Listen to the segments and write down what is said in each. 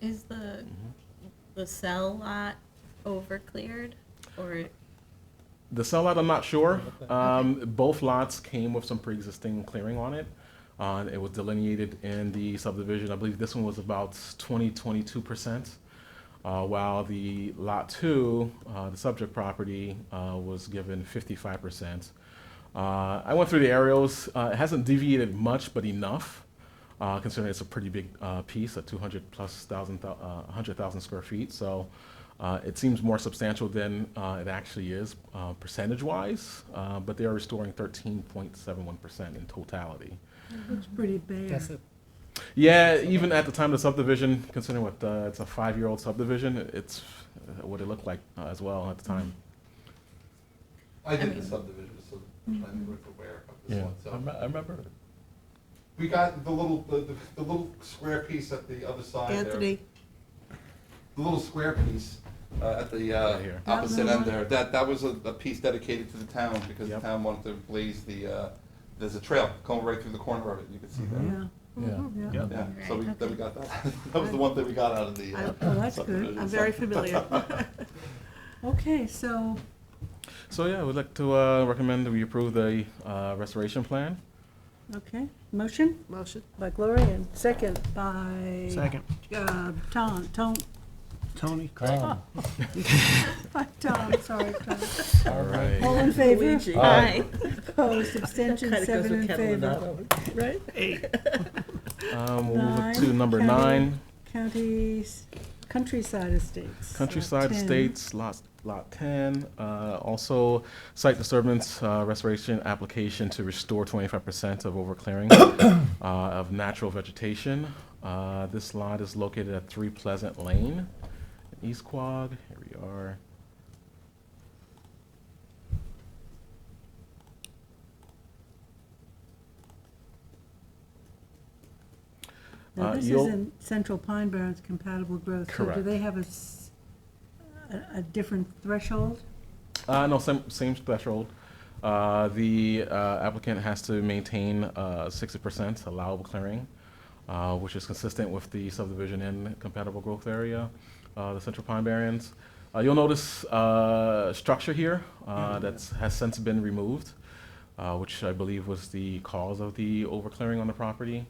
Is the, the cell lot over cleared or, The sellout, I'm not sure. Um, both lots came with some pre-existing clearing on it. Uh, it was delineated in the subdivision. I believe this one was about 20, 22 percent, uh, while the lot two, uh, the subject property, uh, was given 55 percent. Uh, I went through the aerials. Uh, it hasn't deviated much, but enough, uh, considering it's a pretty big uh, piece, a 200 plus thousand, thou- uh, 100,000 square feet. So uh, it seems more substantial than uh, it actually is uh, percentage-wise, uh, but they are restoring 13.71% in totality. Looks pretty bare. That's a, Yeah, even at the time of the subdivision, considering what uh, it's a five-year-old subdivision, it's uh, what it looked like uh, as well at the time. I did mean- the subdivision, so mm-hmm. I'm aware of this Yeah. one, I so. remember, I remember. We got the little, the, the- the little square piece at the other side there. Anthony, The little square piece uh, at the Right uh, here. opposite That end one. there, that, that was a, a piece dedicated to the town because the Yep. town wanted to blaze the, uh, there's a trail going right through the corner of it, you can see that. yeah. Yeah. Mhm, Yeah. Mm-hmm, Yeah, so we, Right, then we okay. got that. That was the one thing we got out of the. I- uh, Oh, that's good. subdivision, I'm so. very familiar. Okay, so, So yeah, we'd like to uh, recommend that we approve the uh, restoration plan. okay, motion? Motion. By Gloria, and second by. second. Uh, Tom, Tom, Tony? Tom. by Tom, sorry, Tom. All right. Uh, All in favor? Luigi. Aye. Opposed, abstention, Kinda goes seven in with favor. Catalinato. Right? Eight. Um, we'll move to Nine, number county. nine. Counties, countryside estates. Countryside 10. Estates, lot, lot ten, uh, also site disturbance, uh, restoration application to restore twenty-five percent of overclearing, uh, of natural vegetation. Uh, this lot is located at Three Pleasant Lane, in East Quogue, here we are. Now, Uh, this is you'll- in Central Pine Barrens compatible growth, so do Correct. they have a, s- a- a different threshold? Uh, no, same, same threshold. Uh, the uh, applicant has to maintain uh, 60% allowable clearing, uh, which is consistent with the subdivision in compatible growth area, uh, the central pine barrens. Uh, you'll notice uh, structure here uh, that's has since been removed, uh, which I believe was the cause of the overclearing on the property.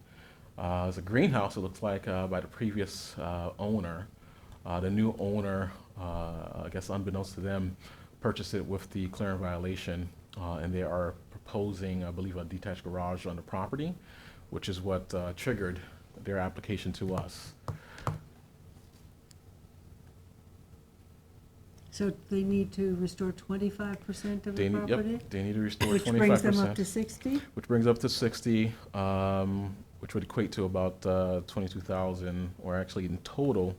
Uh, it's a greenhouse, it looks like, uh, by the previous uh, owner. Uh, the new owner, uh, I guess unbeknownst to them, purchased it with the clearing violation, uh, and they are proposing, I believe, a detached garage on the property, which is what uh, triggered their application to us. So they need to restore twenty-five percent of They the need, property? yep, they need to restore Which brings twenty-five them up to percent, sixty? which brings up to sixty, um, which would equate to about uh, twenty-two thousand, or actually in total,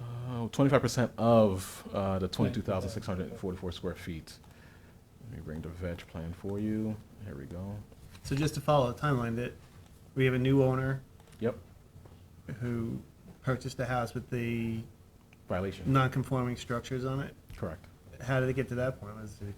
uh, twenty-five percent of uh, the twenty-two thousand six hundred and forty-four square feet. Let me bring the veg plan for you. Here we go. So just to follow the timeline, that we have a new owner Yep, who purchased the house with the violation. non-conforming structures on it. Correct. How did it get to that point? Was it-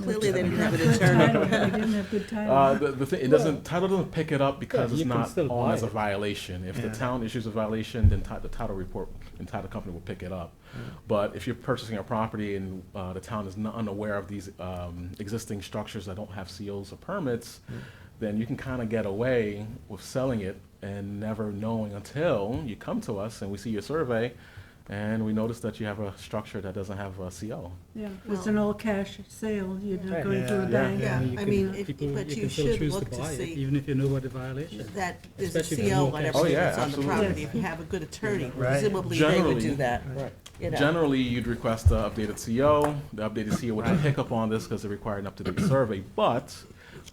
Clearly, they didn't have an Good attorney. title. They didn't have good Uh, title. the, the thing, it doesn't, title doesn't pick it up because Yeah, it's you can not still on buy as a it. violation. If the Yeah. town issues a violation, then ti- the title report and title company will pick it up. Mm. But if you're purchasing a property and uh, the town is not unaware of these um, existing structures that don't have COs or permits, Mm. then you can kind of get away with selling it and never knowing until you come to us and we see your survey and we notice that you have a structure that doesn't have a CO. Yeah, it's an all cash sale, you're not going to a Yeah. bank. Yeah, you I can- mean, if- people- but you can still should choose look to buy it, see- Even if you know what the violation is. That is a Especially if there's CO no on cash. Oh, everything yeah, that's on the absolutely. property. If you have a good attorney, Right. presumably they would Generally- do that, you know. Generally, you'd request the updated CO. The updated CO would hiccup on this because it required an up-to-date survey. But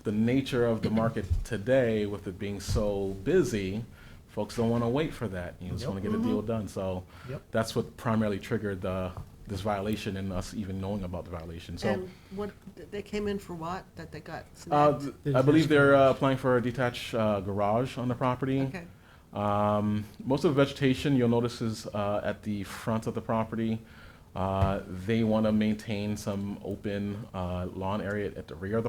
the nature of the market today, with it being so busy, folks don't want to wait for that. You just want to get Mm-hmm. a deal done. So Yep. that's what primarily triggered the, this violation and us even knowing about the violation. So, And what, they came in for what, that they got uh, snagged? th- I believe they're uh, applying for a detached uh, garage on the property. Okay, Um, most of the vegetation you'll notice is uh, at the front of the property. Uh, they want to maintain some open uh, lawn area at the rear of the